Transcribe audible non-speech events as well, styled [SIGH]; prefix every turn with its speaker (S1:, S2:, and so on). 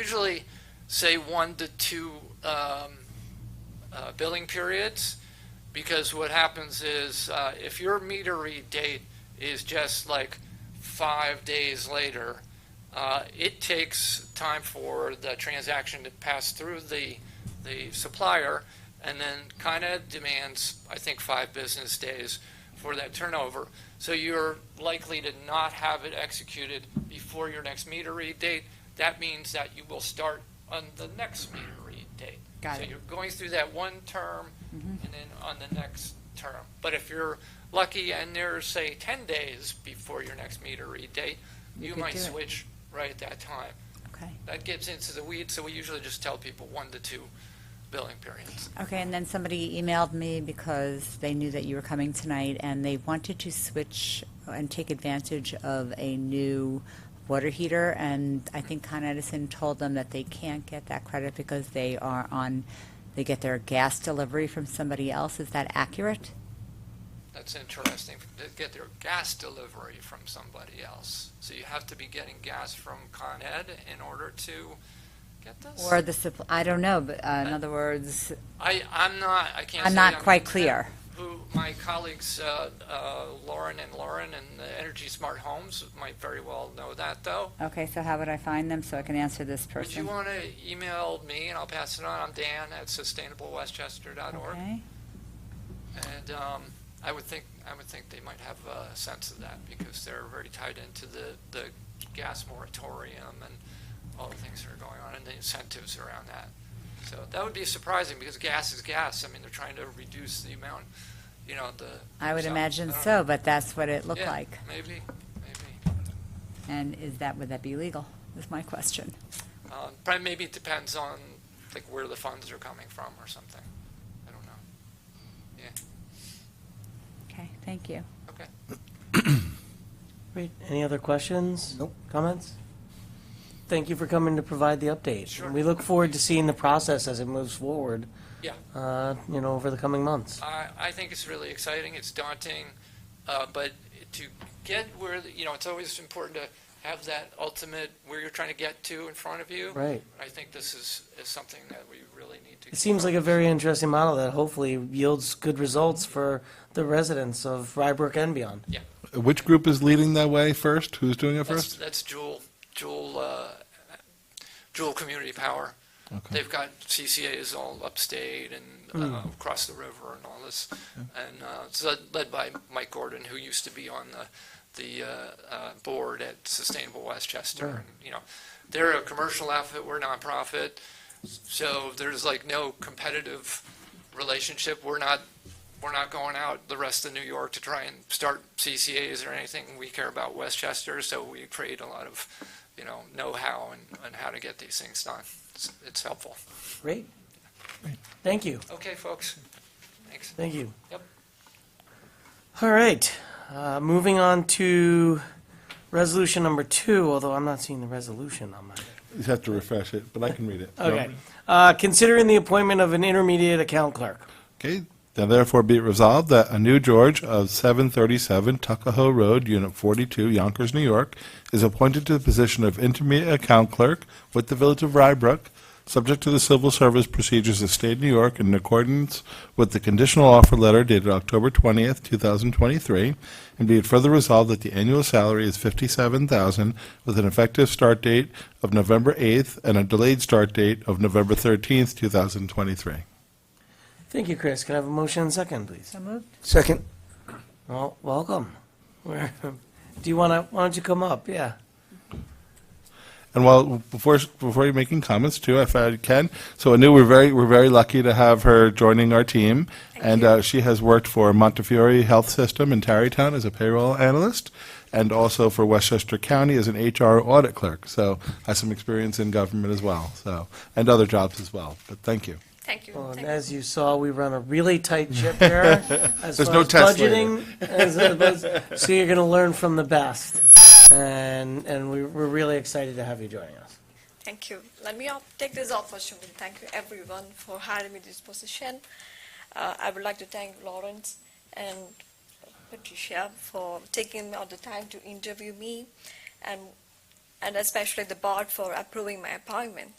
S1: usually say one to two um, uh, billing periods, because what happens is, uh, if your meter read date is just like five days later, uh, it takes time for the transaction to pass through the, the supplier, and then kind of demands, I think, five business days for that turnover. So you're likely to not have it executed before your next meter read date. That means that you will start on the next meter read date.
S2: Got
S1: So
S2: it.
S1: you're going through that one term
S2: Mm-hmm.
S1: and then on the next term. But if you're lucky and there's, say, 10 days before your next meter read date,
S2: You
S1: you
S2: could
S1: might
S2: do it.
S1: switch right at that time.
S2: Okay,
S1: That gets into the weeds, so we usually just tell people one to two billing periods.
S2: okay, and then somebody emailed me because they knew that you were coming tonight, and they wanted to switch and take advantage of a new water heater, and I think Con Edison told them that they can't get that credit because they are on, they get their gas delivery from somebody else, is that accurate?
S1: That's interesting, to get their gas delivery from somebody else. So you have to be getting gas from Con Ed in order to get this?
S2: Or the, supp- I don't know, but uh, in other words,
S1: I, I'm not, I can't
S2: I'm
S1: say
S2: not quite
S1: exact-
S2: clear.
S1: Who, my colleagues, uh, uh, Lauren and Lauren and the Energy Smart Homes might very well know that, though.
S2: Okay, so how would I find them so I can answer this
S1: Would you
S2: person?
S1: want to email me, and I'll pass it on? I'm Dan at sustainablewestchester.org.
S2: Okay,
S1: And um, I would think, I would think they might have a sense of that because they're very tied into the, the gas moratorium and all the things that are going on and the incentives around that. So that would be surprising because gas is gas. I mean, they're trying to reduce the amount, you know, the.
S2: I would
S1: so,
S2: imagine
S1: I don't
S2: so,
S1: know.
S2: but that's what it looked
S1: Yeah,
S2: like.
S1: Maybe, maybe.
S2: And is that, would that be legal, is my question.
S1: Um, Probably maybe it depends on like where the funds are coming from or something. I don't know. Yeah,
S2: Okay, thank you.
S1: okay.
S3: Great. Any other questions?
S4: Nope.
S3: Comments? Thank you for coming to provide the update.
S1: Sure.
S3: We look forward to seeing the process as it moves forward,
S1: Yeah.
S3: uh, you know, over the coming months.
S1: I, I think it's really exciting, it's daunting, uh, but to get where, the- you know, it's always important to have that ultimate, where you're trying to get to in front of you.
S3: Right.
S1: I think this is, is something that we really need to.
S3: It seems like a very interesting model that hopefully yields good results for the residents of Rybrook and beyond.
S1: Yeah,
S4: Which group is leading that way first? Who's doing it
S1: that's,
S4: first?
S1: that's Jewel, Jewel, uh, Jewel Community Power.
S4: Okay.
S1: They've got CCAs all upstate and uh, across the river and all this. And uh, it's led- led by Mike Gordon, who used to be on the, the uh, uh, board at Sustainable Westchester. And, You know, they're a commercial outfit, we're nonprofit. So there's like no competitive relationship. We're not, we're not going out the rest of New York to try and start CCAs or anything. We care about Westchester, so we create a lot of, you know, know-how and, and how to get these things done. It's, it's helpful.
S3: Great. Thank you.
S1: Okay, folks. Thanks.
S3: Thank you.
S1: Yep.
S3: All right, uh, moving on to resolution number two, although I'm not seeing the resolution on my.
S4: You have to refresh it, but I can read it.
S3: Okay, uh, considering the appointment of an intermediate account clerk.
S4: Okay. Now therefore be it resolved that a new George of 737 Tuckahoe Road, Unit 42, Yonkers, New York, is appointed to the position of intermediate account clerk with the Village of Rybrook, subject to the civil service procedures of state of New York in accordance with the conditional offer letter dated October 20th, 2023, and be it further resolved that the annual salary is 57000 with an effective start date of November 8th and a delayed start date of November 13th, 2023.
S3: Thank you, Chris. Can I have a motion and second, please?
S2: So moved?
S5: Second.
S3: Well, welcome. Where- [LAUGHS] Do you want to, why don't you come up? Yeah.
S4: And while before before you're making comments too, if I can, so I knew we're very we're very lucky to have her joining our team, and uh, she has worked for Montefiore Health System in Tarrytown as a payroll analyst, and also for Westchester County as an HR audit clerk. So has some experience in government as well, so and other jobs as well. But thank you.
S6: Thank you.
S3: Well, and
S6: Thank
S3: as you saw, we run a really tight
S4: [LAUGHS]
S3: ship here. There's
S4: no test later.
S3: budgeting. as-
S4: [LAUGHS]
S3: as- so you're going to learn from the best, and and we, we're really excited to have you joining us.
S6: Thank you. Let me op- take this opportunity. to Thank you everyone for hiring me this position. Uh, I would like to thank Lawrence and Patricia for taking out the time to interview me. And and especially the board for approving my appointment.